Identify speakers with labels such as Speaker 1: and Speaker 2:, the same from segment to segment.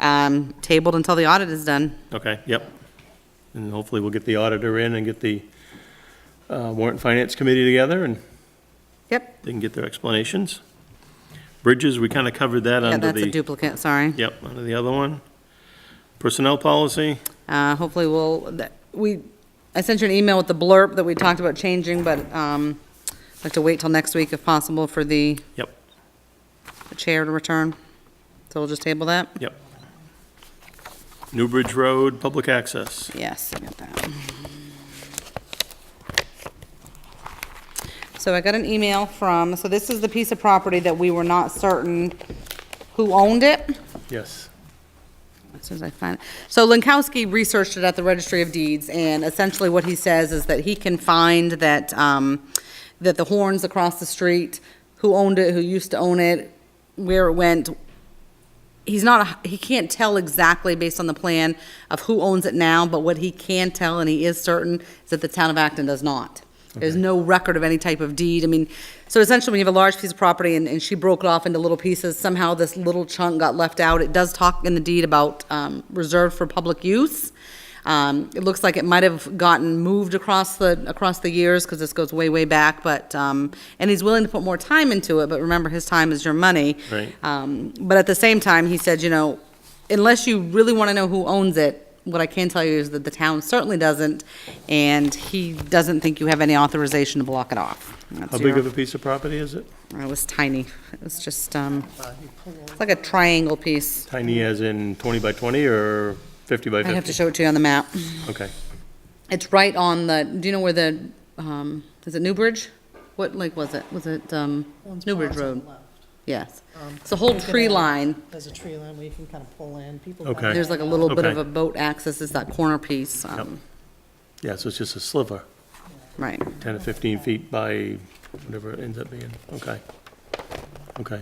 Speaker 1: um, tabled until the audit is done.
Speaker 2: Okay, yep. And hopefully we'll get the auditor in and get the uh, warrant and finance committee together and
Speaker 1: Yep,
Speaker 2: they can get their explanations. Bridges, we kind of covered that
Speaker 1: yeah,
Speaker 2: under
Speaker 1: that's a
Speaker 2: the,
Speaker 1: duplicate, sorry.
Speaker 2: yep, under the other one. Personnel policy,
Speaker 1: Uh, hopefully we'll, that- we, I sent you an email with the blurb that we talked about changing, but, um, I'd like to wait till next week if possible for the
Speaker 2: yep,
Speaker 1: chair to return. So we'll just table that?
Speaker 2: yep. Newbridge Road, public access.
Speaker 1: Yes, I got that. So I got an email from, so this is the piece of property that we were not certain who owned it.
Speaker 2: Yes.
Speaker 1: As soon as I find it. So Lankowski researched it at the Registry of Deeds, and essentially what he says is that he can find that, um, that the horns across the street, who owned it, who used to own it, where it went. He's not, a- he can't tell exactly based on the plan of who owns it now, but what he can tell, and he is certain, is that the town of Acton does not. There's no record of any type of deed. I mean, so essentially, when you have a large piece of property and, and she broke it off into little pieces, somehow this little chunk got left out. It does talk in the deed about, um, reserved for public use. Um, it looks like it might have gotten moved across the, across the years, because this goes way, way back, but, um, and he's willing to put more time into it, but remember, his time is your money.
Speaker 2: Right.
Speaker 1: Um, but at the same time, he said, you know, unless you really want to know who owns it, what I can tell you is that the town certainly doesn't, and he doesn't think you have any authorization to block it off. That's
Speaker 2: How big
Speaker 1: your-
Speaker 2: of a piece of property is it?
Speaker 1: It was tiny. It was just, um, it's like a triangle piece.
Speaker 2: Tiny as in 20 by 20 or 50 by 50?
Speaker 1: I have to show it to you on the map.
Speaker 2: Okay.
Speaker 1: It's right on the, do you know where the, um, is it Newbridge? What lake was it? Was it, um,
Speaker 3: One's
Speaker 1: Newbridge
Speaker 3: ponds on the
Speaker 1: Road?
Speaker 3: left.
Speaker 1: Yes.
Speaker 3: Um,
Speaker 1: It's a whole
Speaker 3: you can
Speaker 1: tree
Speaker 3: add-
Speaker 1: line.
Speaker 3: There's a tree line where you can kind of pull in, people.
Speaker 2: Okay.
Speaker 3: buy
Speaker 1: There's like a little bit of
Speaker 2: Okay.
Speaker 1: a boat access, it's that corner piece, um,
Speaker 2: Yeah, so it's just a sliver,
Speaker 1: right.
Speaker 2: 10 to 15 feet by whatever it ends up being. Okay. Okay.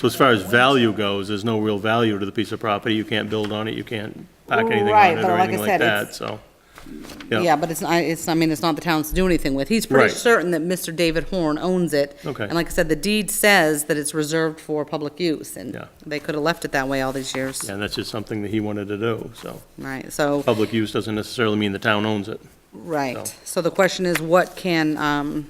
Speaker 2: So as far as value goes, there's no real value to the piece of property. You can't build on it, you can't pack anything
Speaker 1: Right,
Speaker 2: on it
Speaker 1: but
Speaker 2: or
Speaker 1: like I
Speaker 2: anything like
Speaker 1: said,
Speaker 2: that,
Speaker 1: it's-
Speaker 2: so.
Speaker 1: Yeah, but it's, not. it's, I mean, it's not the town's to do anything with. He's
Speaker 2: Right.
Speaker 1: pretty certain that Mr. David Horn owns it.
Speaker 2: Okay.
Speaker 1: And like I said, the deed says that it's reserved for public use,
Speaker 2: Yeah.
Speaker 1: and they could have left it that way all these years.
Speaker 2: And that's just something that he wanted to do, Oh, so.
Speaker 1: Right, so,
Speaker 2: Public use doesn't necessarily mean the town owns it.
Speaker 1: right. So the question is, what can, um,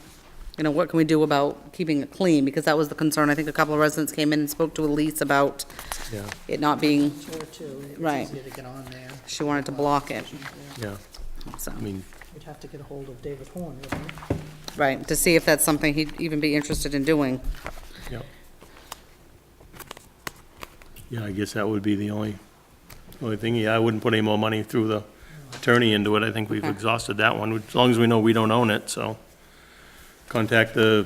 Speaker 1: you know, what can we do about keeping it clean? Because that was the concern. I think a couple of residents came in and spoke to Elise about
Speaker 2: Yeah,
Speaker 1: it not being,
Speaker 3: a chair too. It's
Speaker 1: Right.
Speaker 3: easier to get on there.
Speaker 1: she wanted to block it,
Speaker 2: yeah.
Speaker 1: so.
Speaker 2: I mean,
Speaker 3: You'd have to get a hold of David Horn, wouldn't you?
Speaker 1: Right, to see if that's something he'd even be interested in doing.
Speaker 2: yeah. Yeah, I guess that would be the only, only thing. Yeah, I wouldn't put any more money through the attorney into it. I think we've
Speaker 1: Okay.
Speaker 2: exhausted that one, as long as we know we don't own it, so. Contact the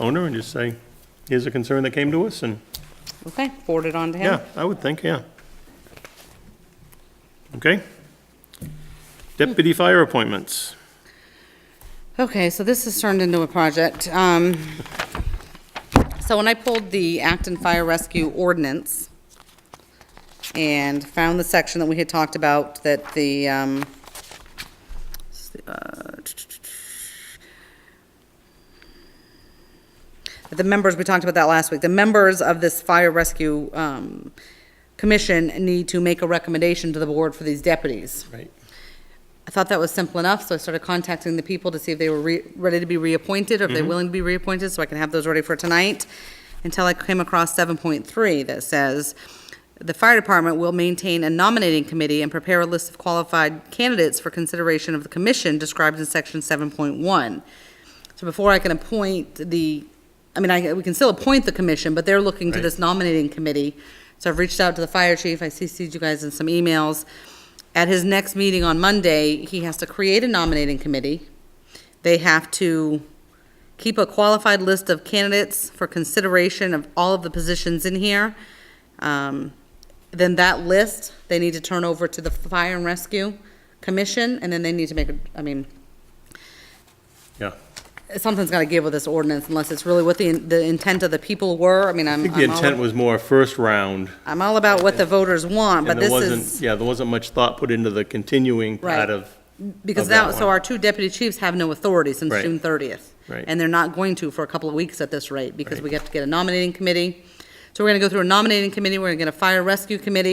Speaker 2: owner and just say, here's a concern that came to us, and,
Speaker 1: Okay, forward it on to him.
Speaker 2: yeah, I would think, yeah. Okay? Deputy fire appointments.
Speaker 1: Okay, so this has turned into a project. Um, So when I pulled the Acton Fire Rescue Ordinance and found the section that we had talked about, that the, um, that the members, we talked about that last week, the members of this fire rescue um, commission need to make a recommendation to the board for these deputies.
Speaker 2: Right.
Speaker 1: I thought that was simple enough, so I started contacting the people to see if they were re- ready to be reappointed, or if they're willing to be reappointed, so I can have those ready for tonight, until I came across 7.3 that says, "The fire department will maintain a nominating committee and prepare a list of qualified candidates for consideration of the commission described in section 7.1." So before I can appoint the, I mean, I, we can still appoint the commission, but they're looking to
Speaker 2: Right.
Speaker 1: this nominating committee. So I've reached out to the fire chief, I CC'd you guys in some emails. At his next meeting on Monday, he has to create a nominating committee. They have to keep a qualified list of candidates for consideration of all of the positions in here. Um, Then that list, they need to turn over to the Fire and Rescue Commission, and then they need to make, a I mean,
Speaker 2: Yeah.
Speaker 1: something's got to give with this ordinance unless it's really what the, the intent of the people were. I mean, I'm,
Speaker 2: I think the
Speaker 1: I'm
Speaker 2: intent
Speaker 1: all,
Speaker 2: was more first round,
Speaker 1: I'm all about what the voters want, but
Speaker 2: and there
Speaker 1: this
Speaker 2: wasn't,
Speaker 1: is,
Speaker 2: yeah, there wasn't much thought put into the continuing part
Speaker 1: Right.
Speaker 2: of,
Speaker 1: because
Speaker 2: of that
Speaker 1: now, so
Speaker 2: one.
Speaker 1: our two deputy chiefs have no authority since
Speaker 2: Right.
Speaker 1: June thirtieth.
Speaker 2: Right.
Speaker 1: And they're not going to for a couple of weeks at this rate because
Speaker 2: Right.
Speaker 1: we have to get a nominating committee. So we're going to go through a nominating committee, we're going to get a fire rescue committee,